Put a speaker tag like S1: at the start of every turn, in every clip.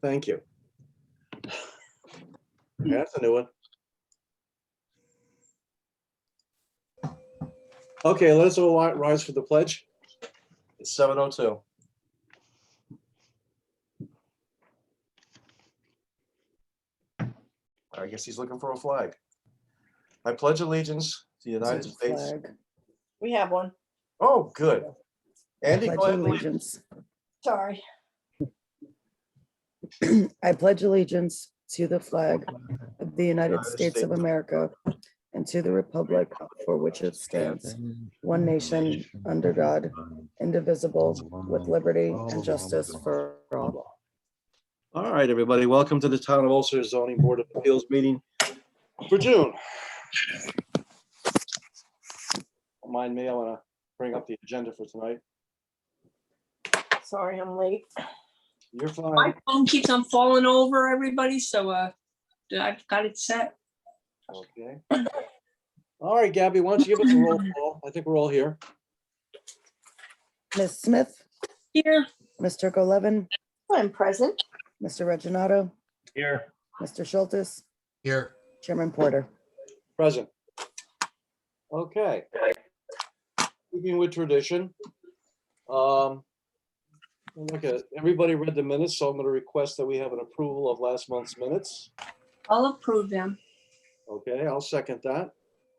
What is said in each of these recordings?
S1: Thank you. That's a new one. Okay, let us all ri- rise for the pledge. It's seven oh two. I guess he's looking for a flag. I pledge allegiance to the United States.
S2: flag.
S3: We have one.
S1: Oh, good. Andy,
S2: Pledge
S1: go ahead, please.
S2: allegiance.
S3: Sorry.
S2: I pledge allegiance to the flag of the United States of America and to the republic for which it stands, one nation, under God, indivisible, with liberty and justice for all.
S1: All right, everybody, welcome to the Town of Ulster Zoning Board of Appeals meeting for June. Mind me, I want to bring up the agenda for tonight.
S3: Sorry, I'm late.
S1: You're
S4: My
S1: fine.
S4: phone keeps on falling over, everybody, so uh, I've got it set.
S1: Okay. All right, Gabby, why don't you give us a roll call? I think we're all here.
S2: Ms. Smith,
S4: Here,
S2: Mr. Golevin,
S3: I'm present.
S2: Mr. Reggino. Here. Mr. Schultz,
S5: Here,
S2: Chairman Porter.
S1: Present. Okay. Keeping with tradition. um, Look at, everybody read the minutes, so I'm going to request that we have an approval of last month's minutes.
S4: I'll approve them.
S1: Okay, I'll second that.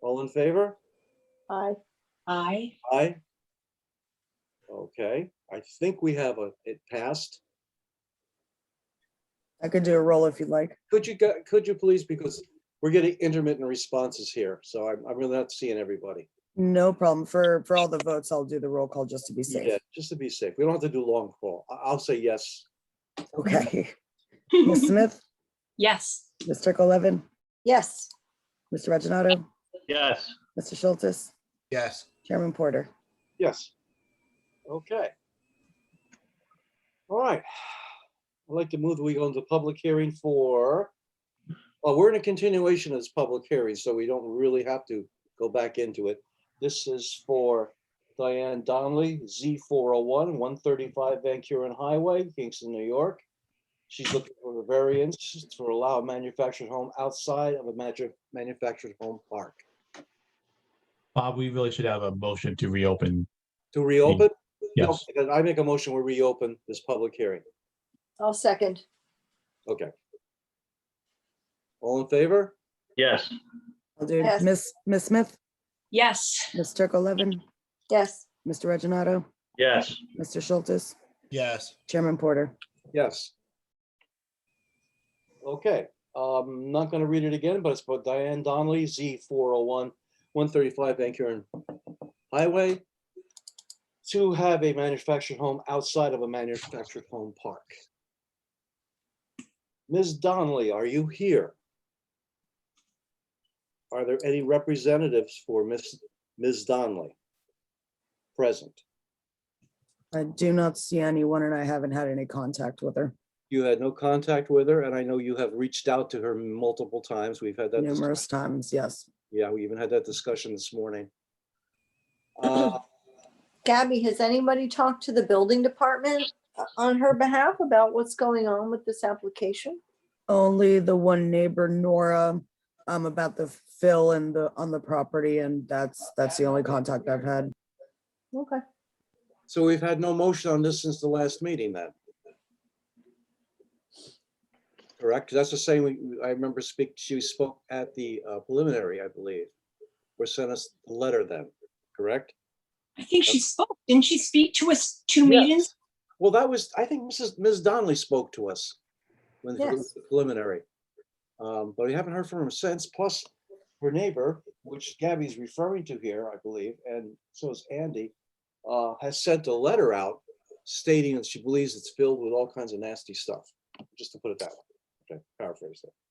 S1: All in favor?
S3: Hi.
S4: I,
S1: Aye. Okay, I think we have a, it passed.
S2: I could do a roll if you'd like.
S1: Could you, go- could you please, because we're getting intermittent responses here, so I'm, I'm really not seeing everybody.
S2: No problem. For, for all the votes, I'll do the roll call just to be
S1: Yeah,
S2: safe.
S1: just to be safe. We don't have to do long call. I, will say yes.
S2: Okay. Ms. Smith,
S4: yes,
S2: Mr. Golevin,
S3: Yes.
S2: Mr. Reggino,
S6: Yes,
S2: Mr. Schultz,
S5: yes,
S2: Chairman Porter.
S1: Yes. Okay. All right. I'd like to move, that we go into public hearing for, well, we're in a continuation of this public hearing, so we don't really have to go back into it. This is for Diane Donnelly, Z 401, 135 Van Kuren Highway, Kingston, New York. She's looking for a variance to allow a manufactured home outside of a manu- manufactured home park.
S7: Bob, we really should have a motion to reopen.
S1: To reopen? No,
S7: Yes.
S1: because I make a motion, we reopen this public hearing.
S3: I'll second.
S1: Okay. All in favor?
S6: yes,
S2: I'll do
S3: Yes.
S2: Miss Miss Smith,
S4: yes,
S2: Ms. Levin,
S3: Yes.
S2: Mr. Reggino,
S6: yes,
S2: Mr. Schultz,
S5: yes,
S2: Chairman Porter.
S1: Yes. Okay, um, not gonna read it again, but it's about Diane Donnelly, Z four oh one, one thirty-five Van Kuren Highway. To have a manufactured home outside of a manufactured home park. Ms. Donnelly, are you here? Are there any representatives for Ms. Ms. Donnelly? Present.
S2: I do not see anyone and I haven't had any contact with her
S1: You had no contact with her, and I know you have reached out to her multiple times. We've had that, dis-
S2: numerous times, yes.
S1: yeah, we even had that discussion this morning. Uh,
S3: Gabby, has anybody talked to the building department uh, on her behalf about what's going on with this application?
S2: Only the one neighbor, Nora, um, about the fill and the, on the property and that's, that's the only contact I've had.
S3: Okay.
S1: So we've had no motion on this since the last meeting then. Correct? That's the same, we- I remember speak, she spoke at the uh, preliminary, I believe, or sent us a letter then, correct?
S4: I think she spoke. Didn't she speak to us two meetings?
S1: Well, that was, I think Mrs. Ms. Donnelly spoke to us when it was preliminary. Um, but we haven't heard from her since, plus her neighbor, which Gabby's referring to here, I believe, and so is Andy, uh, has sent a letter out stating that she believes it's filled with all kinds of nasty stuff, just to put it that way. Okay, paraphrase that.